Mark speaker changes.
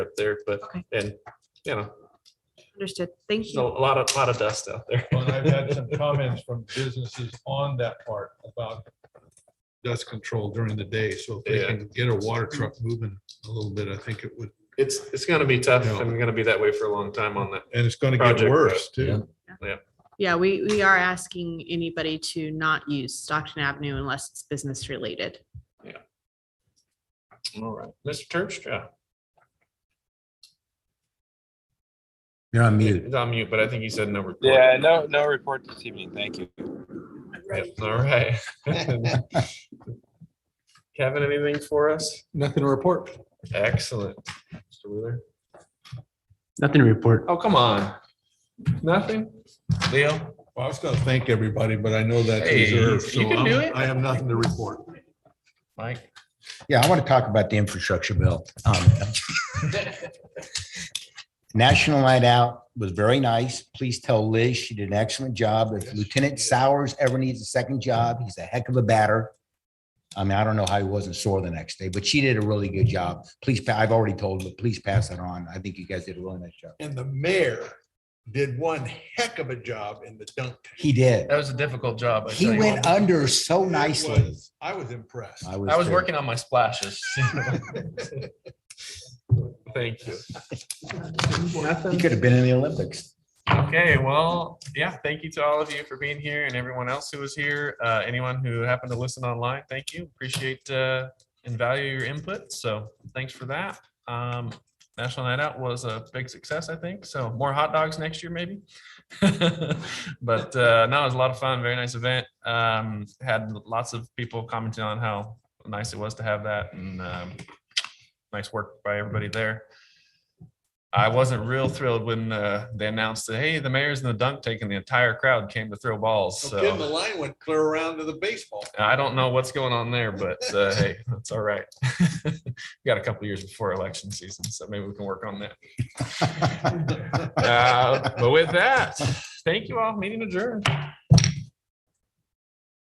Speaker 1: up there, but,
Speaker 2: Okay.
Speaker 1: and, you know,
Speaker 2: Understood. Thank
Speaker 1: there's a
Speaker 2: you.
Speaker 1: lot of, lot of dust out there.
Speaker 3: Well, I've had some comments from businesses on that part about dust control during the day. So if they
Speaker 1: Yeah.
Speaker 3: can get a water truck moving a little bit, I think it would,
Speaker 1: It's, it's gonna be tough
Speaker 3: Yeah.
Speaker 1: and gonna be that way for a long time on that.
Speaker 3: and it's going to get
Speaker 1: Project,
Speaker 3: worse
Speaker 4: yeah.
Speaker 3: too.
Speaker 2: Yeah, we, we are asking anybody to not use Stockton Avenue unless it's business related.
Speaker 1: All right. Mr. Terpstra.
Speaker 4: You're on mute.
Speaker 1: He's on mute, but I think he said no report.
Speaker 5: Yeah, no, no report this evening. Thank you.
Speaker 1: Yep, All right. Kevin, anything for us?
Speaker 3: Nothing to report.
Speaker 1: Excellent. Mr. Wheeler?
Speaker 4: Nothing to report.
Speaker 1: Oh, come on. Nothing? Leo?
Speaker 3: Well, I was going to thank everybody, but I know that's
Speaker 1: Hey,
Speaker 3: reserved.
Speaker 1: you
Speaker 3: So
Speaker 1: can do
Speaker 3: I'm-
Speaker 1: it.
Speaker 3: I have nothing to report.
Speaker 1: Mike?
Speaker 4: Yeah, I want to talk about the infrastructure bill. Um, National Night Out was very nice. Please tell Liz she did an excellent job. If Lieutenant Sowers ever needs a second job, he's a heck of a batter. I mean, I don't know how he wasn't sore the next day, but she did a really good job. Please, pa- I've already told, her, but please pass that on. I think you guys did a really nice job.
Speaker 6: and the mayor did one heck of a job in the dunk.
Speaker 4: He did.
Speaker 1: That was a difficult job.
Speaker 4: He went under so
Speaker 6: It
Speaker 4: nicely.
Speaker 6: was- I was impressed.
Speaker 4: there.
Speaker 1: on my splashes. Thank you.
Speaker 4: He could have been in the Olympics.
Speaker 1: Okay, well, yeah, thank you to all of you for being here and everyone else who was here. Uh, anyone who happened to listen online, thank you. Appreciate uh, and value your input. So thanks for that. Um, National Night Out was a big success, I think. So more hot dogs next year, maybe. but uh, no, it was a lot of fun. Very nice event. Um, had lots of people commenting on how nice it was to have that and um, nice work by everybody there. I wasn't real thrilled when uh, they announced that, hey, the mayor's in the dunk tank and the entire crowd came to throw
Speaker 3: Oh,
Speaker 1: balls.
Speaker 6: No kidding, the
Speaker 1: So
Speaker 6: line went clear around to the baseball.
Speaker 1: I don't know what's going on there, but uh, hey, that's all right. We Got a couple years before election season, so maybe we can work on that. Uh, But with that, thank you all. Meeting adjourned.